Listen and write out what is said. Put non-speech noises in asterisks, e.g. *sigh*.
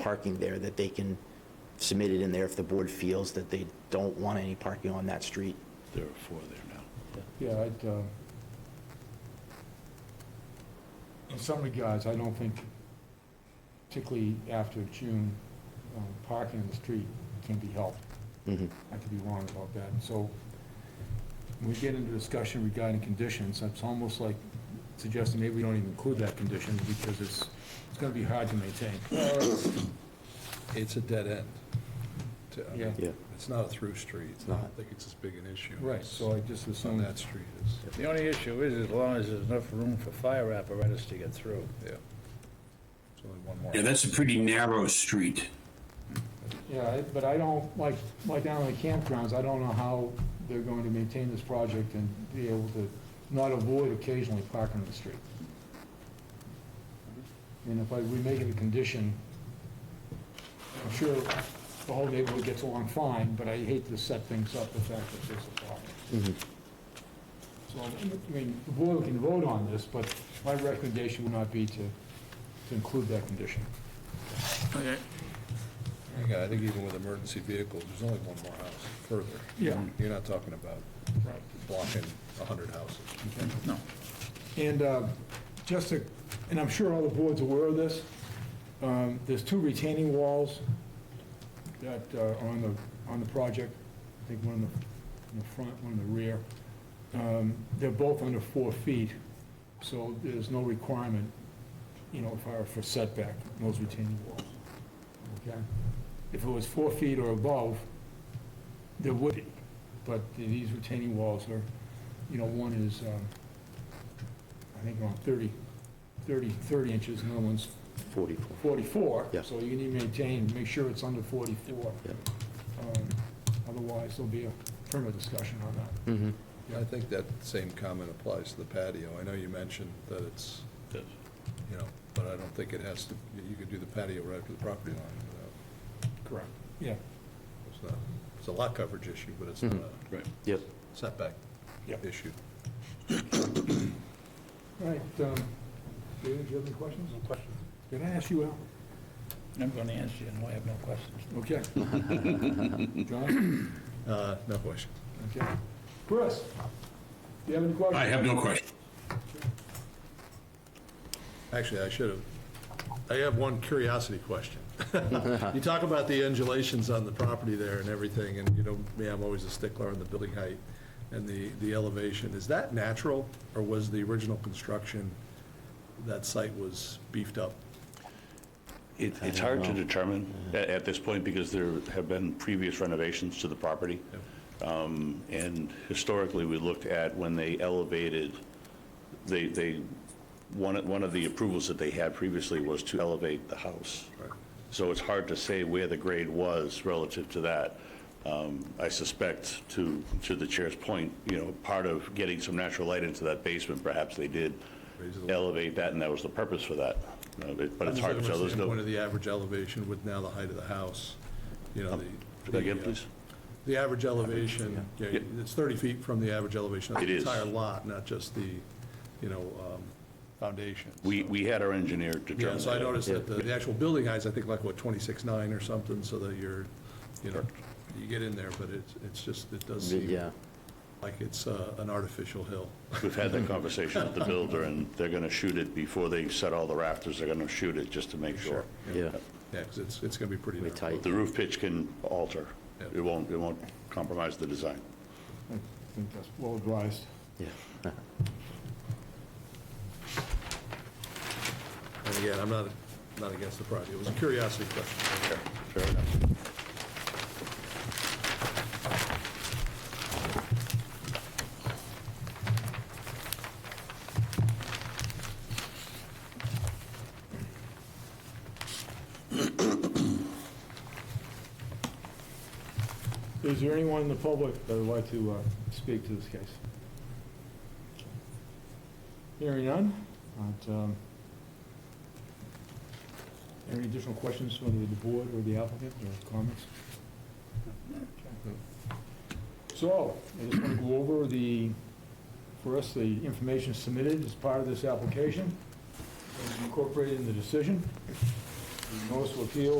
parking there, that they can submit it in there if the board feels that they don't want any parking on that street. There are four there now. Yeah, I'd, uh, in some regards, I don't think, particularly after June, um, parking in the street can be helped. Mhm. I could be wrong about that. So when we get into discussion regarding conditions, it's almost like suggesting maybe we don't even include that condition because it's, it's gonna be hard to maintain. It's a dead end. To- I mean, Yeah. Yeah. It's not a through street. It's not. I don't think it's as big an issue. Right, so I just as On assume that street is, The only issue is as long as there's enough room for fire apparatus to get through. yeah. It's only one more. Yeah, that's a pretty narrow street. Yeah, I- but I don't, like, like down on the campgrounds, I don't know how they're going to maintain this project and be able to not avoid occasionally parking on the street. And if I, we make it a condition, I'm sure the whole neighborhood gets along fine, but I hate to set things up the fact that there's a problem. So, I mean, the board can vote on this, but my recommendation would not be to, to include that condition. Yeah, I think even with emergency vehicles, there's only one more house further. Yeah. You're not talking about Right. blocking a hundred houses. No. And uh, just to, and I'm sure all the board's aware of this, um, there's two retaining walls that uh, are on the, on the project, I think one in the, in the front, one in the rear. Um, They're both under four feet, so there's no requirement, you know, for, for setback, in those retaining walls. Okay? If it was four feet or above, there would be, but these retaining walls are, you know, one is, um, I think around 30, 30, 30 inches, and the other one's 44. 44. Yeah. So you need to maintain, make sure it's under 44. Yeah. Um, Otherwise, there'll be a firmer discussion on that. Mm-hmm. I think that same comment applies to the patio. I know you mentioned that it's, you know, but I don't think it has to, you could do the patio right up to the property line without, Correct. Yeah, it's not, it's a lot coverage issue, but it's not a Right. Yep. setback Yep. issue. all right. um, David, do you have any questions? No questions. Did I ask you out? I'm going to answer you, no, I have no questions. *laughs* Okay. John? Uh, No question. Okay. Chris, do you have any questions? I have no question. Actually, I should have. I have one curiosity question. *laughs* You talk about the undulations on the property there and everything, and you know, me, I'm always a stickler on the building height and the, the elevation. Is that natural, or was the original construction, that site was beefed up? It, it's hard to determine at, at this point because there have been previous renovations to the property. Um, And historically, we looked at when they elevated, they, they, one, of- one of the approvals that they had previously was to elevate the house. Right. So it's hard to say where the grade was relative to that. Um, I suspect, to, to the chair's point, you know, part of getting some natural light into that basement, perhaps they did Raise it a- elevate that, and that was the purpose for that. Uh, but- But it's hard to tell, there's no... One of the average elevation with now the height of the house, you know, the. Um, Say that again, the, uh, please? The average elevation, yeah, Yeah. it's 30 feet from the average elevation of It the is. entire lot, not just the, you know, um, foundation. We, we had our engineer Yeah, determine so I that. noticed that the the actual building heights, I think like, what, 26.9 or something, so that you're, you know, you get in there, but it's, it's just, it does seem Yeah. like it's uh, an artificial hill. *laughs* We've had that conversation with the builder, and they're going to shoot it before they set all the rafters, they're going to shoot it just to make sure. Yeah. Yeah, because it's, it's going to be pretty Pretty narrow. tight. The roof pitch can alter, Yeah. it won't, it won't compromise the design. I think that's well advised. Yeah. And again, I'm not, not against the project, it was a curiosity question. Fair enough. Is there anyone in the public that would like to uh, speak to this case? Hearing none. but, um, Any additional questions from the board or the applicant or comments? So, I just want to go over the, for us, the information submitted as part of this application, incorporated in the decision. The Notice of appeal